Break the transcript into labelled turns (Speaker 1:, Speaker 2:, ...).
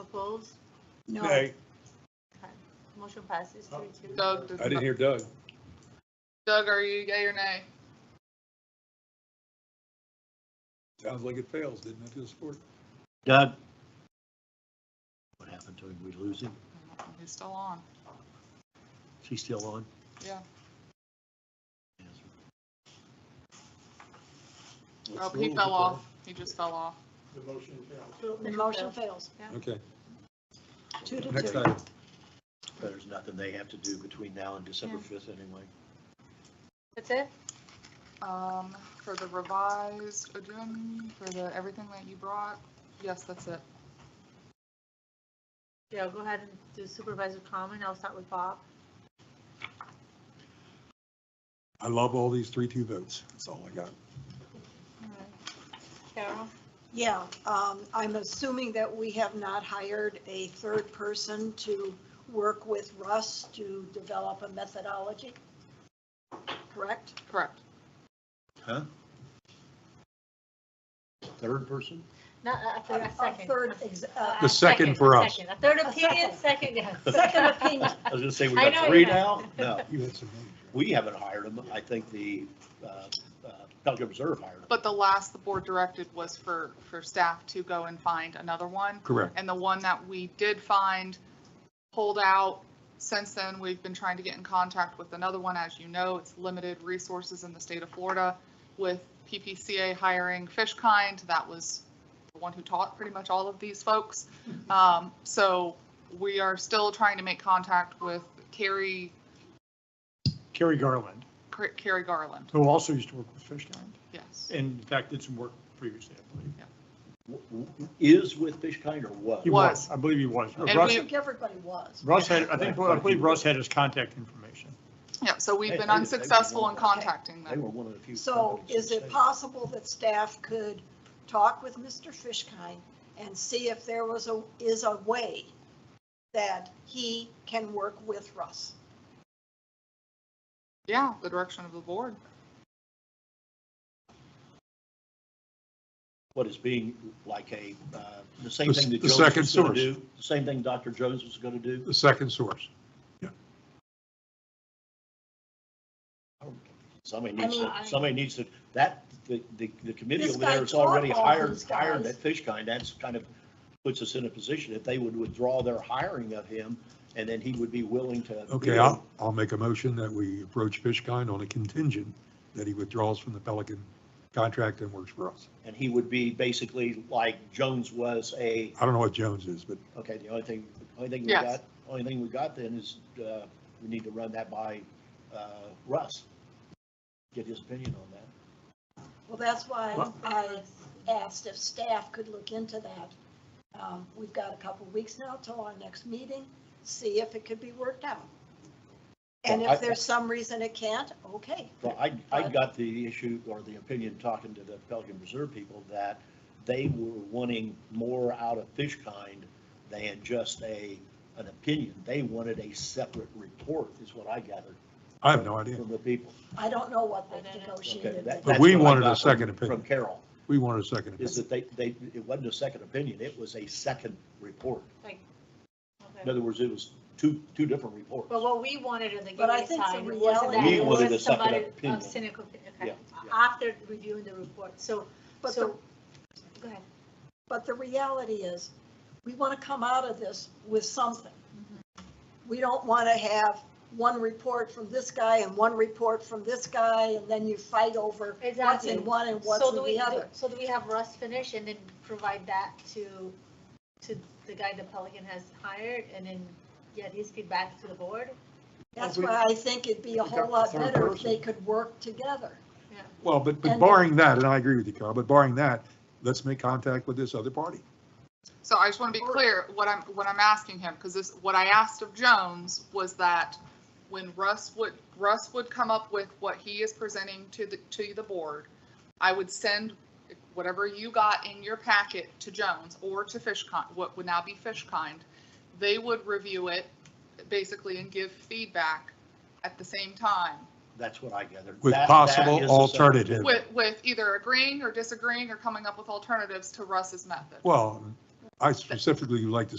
Speaker 1: Opposed?
Speaker 2: No.
Speaker 3: Nay,
Speaker 1: Motion passes three two.
Speaker 4: Doug, does
Speaker 3: I didn't
Speaker 4: not-
Speaker 3: hear Doug.
Speaker 4: Doug, are you yay or nay?
Speaker 3: Sounds like it fails, didn't it, this board?
Speaker 5: Doug? What happened to him? We lose him?
Speaker 4: He's still on.
Speaker 5: Is he still on?
Speaker 4: Yeah.
Speaker 5: Yes.
Speaker 4: Oh, he fell off. He just fell off.
Speaker 6: The motion fails.
Speaker 2: The motion fails,
Speaker 3: Okay,
Speaker 2: two to
Speaker 3: next
Speaker 2: two.
Speaker 3: item.
Speaker 5: There's nothing they have to do between now and December
Speaker 1: Yeah.
Speaker 5: 5th anyway.
Speaker 1: That's it?
Speaker 4: Um, for the revised agenda, for the, everything that you brought, yes, that's it.
Speaker 1: Yeah, go ahead and do supervisor comment. I'll start with Bob.
Speaker 3: I love all these three, two votes. That's all I got.
Speaker 1: Carol?
Speaker 2: Yeah, um, I'm assuming that we have not hired a third person to work with Russ to develop a methodology, correct?
Speaker 4: Correct.
Speaker 5: Huh? Third person?
Speaker 1: Not, a
Speaker 2: A-
Speaker 1: third,
Speaker 2: a
Speaker 1: a second.
Speaker 2: third ex- uh,
Speaker 3: The second for us.
Speaker 1: second. A third
Speaker 2: A
Speaker 1: opinion, second, yes.
Speaker 2: Second opinion.
Speaker 5: I was gonna say, we
Speaker 1: I
Speaker 5: got
Speaker 1: know
Speaker 5: three
Speaker 1: you
Speaker 5: now?
Speaker 1: have.
Speaker 5: No,
Speaker 3: You had some.
Speaker 5: we haven't hired them. I think the uh, uh, Pelican Reserve hired them.
Speaker 4: But the last the board directed was for, for staff to go and find another one.
Speaker 3: Correct.
Speaker 4: And the one that we did find, pulled out. Since then, we've been trying to get in contact with another one. As you know, it's limited resources in the state of Florida with PPCA hiring Fishkind. That was the one who taught pretty much all of these folks. Um, So we are still trying to make contact with Carrie,
Speaker 7: Kerry Garland,
Speaker 4: Carrie Garland.
Speaker 7: who also used to work with Fishkind,
Speaker 4: Yes.
Speaker 7: and in fact, did some work previously, I believe.
Speaker 5: W- w- Is with Fishkind or was?
Speaker 7: He
Speaker 4: Was.
Speaker 7: I believe he was.
Speaker 5: And
Speaker 7: Russ,
Speaker 2: I think everybody was.
Speaker 7: Russ had, I think, I believe Russ had his contact information.
Speaker 4: Yeah, so we've
Speaker 5: Hey,
Speaker 4: been
Speaker 5: they- they were
Speaker 4: unsuccessful in
Speaker 5: wonderful.
Speaker 4: contacting
Speaker 5: They
Speaker 4: them.
Speaker 5: were one of the few.
Speaker 2: So
Speaker 5: companies
Speaker 2: is
Speaker 5: that
Speaker 2: it
Speaker 5: stayed.
Speaker 2: possible that staff could talk with Mr. Fishkind and see if there was a, is a way that he can work with Russ?
Speaker 4: Yeah, the direction of the board.
Speaker 5: what is being like a, uh, the same
Speaker 3: The-
Speaker 5: thing that
Speaker 3: the
Speaker 5: Jones
Speaker 3: second
Speaker 5: was going
Speaker 3: source.
Speaker 5: to do, the same thing Dr. Jones was going to do.
Speaker 3: The second source.
Speaker 5: Somebody
Speaker 2: I
Speaker 5: needs
Speaker 2: mean,
Speaker 5: to,
Speaker 2: I-
Speaker 5: somebody needs to, that, the, the the committee
Speaker 2: This
Speaker 5: over there
Speaker 2: guy
Speaker 5: is already
Speaker 2: taught all
Speaker 5: hired,
Speaker 2: these
Speaker 5: hired
Speaker 2: guys.
Speaker 5: that fish kind. That's kind of puts us in a position if they would withdraw their hiring of him and then he would be willing to.
Speaker 3: Okay, I'll, I'll make a motion that we approach Fishkind on a contingent that he withdraws from the Pelican contract and works for us.
Speaker 5: And he would be basically like Jones was a,
Speaker 3: I don't know what Jones is, but
Speaker 5: okay, the only thing, only thing we
Speaker 4: Yes.
Speaker 5: got, only thing we got then is, uh, we need to run that by, uh, Russ. Get his opinion on that.
Speaker 2: Well, that's why
Speaker 7: Well-
Speaker 2: I asked if staff could look into that. Um, We've got a couple weeks now till our next meeting, see if it could be worked out. And
Speaker 5: Well, I-
Speaker 2: if there's some reason it can't, okay.
Speaker 5: Well, I, I got the issue or the opinion talking to the Pelican Reserve people that they were wanting more out of fish kind than just a, an opinion. They wanted a separate report is what I gathered
Speaker 3: I have no idea.
Speaker 5: from the people.
Speaker 2: I don't know what
Speaker 1: I don't
Speaker 2: they
Speaker 1: know.
Speaker 5: Okay,
Speaker 2: negotiated.
Speaker 5: that-
Speaker 3: But
Speaker 5: that's
Speaker 3: we
Speaker 5: what I
Speaker 3: wanted a
Speaker 5: got from-
Speaker 3: second opinion.
Speaker 5: From Carol,
Speaker 3: We wanted a second
Speaker 5: is
Speaker 3: opinion.
Speaker 5: that they, they, it wasn't a second opinion, it was a second report. In
Speaker 1: Okay.
Speaker 5: other words, it was two, two different reports.
Speaker 1: But what we wanted in the
Speaker 2: But I
Speaker 1: beginning
Speaker 2: think the
Speaker 1: time wasn't
Speaker 2: reality-
Speaker 1: that.
Speaker 2: We
Speaker 1: It
Speaker 5: wanted
Speaker 1: was
Speaker 5: a second
Speaker 1: somebody of
Speaker 5: opinion.
Speaker 1: Cynical, okay,
Speaker 5: Yeah, yeah.
Speaker 1: after reviewing the report. So,
Speaker 2: But the
Speaker 1: so, go ahead.
Speaker 2: But the reality is, we want to come out of this with something.
Speaker 1: Mm-hmm.
Speaker 2: We don't want to have one report from this guy and one report from this guy, and then you fight over what's
Speaker 1: Exactly.
Speaker 2: in one and what's
Speaker 1: So
Speaker 2: in
Speaker 1: do we,
Speaker 2: the
Speaker 1: do-
Speaker 2: other.
Speaker 1: so do we have Russ finish and then provide that to, to the guy the Pelican has hired and then get his feedback to the board?
Speaker 2: That's
Speaker 7: we-
Speaker 2: why I think it'd be a
Speaker 7: we got
Speaker 2: whole lot
Speaker 7: the third
Speaker 2: better if they
Speaker 7: person.
Speaker 2: could work together.
Speaker 3: Well, but, but
Speaker 2: And-
Speaker 3: barring that, and I agree with you, Carl, but barring that, let's make contact with this other party.
Speaker 4: So I just want to be clear, what I'm, what I'm asking him, because this, what I asked of Jones was that when Russ would, Russ would come up with what he is presenting to the, to the board, I would send whatever you got in your packet to Jones or to Fishkind, what would now be Fishkind. They would review it basically and give feedback at the same time
Speaker 5: That's what I gathered.
Speaker 3: With
Speaker 5: That- that is
Speaker 3: possible
Speaker 5: a separate-
Speaker 3: alternative.
Speaker 4: with, with either agreeing or disagreeing or coming up with alternatives to Russ's method.
Speaker 3: Well, I specifically would like to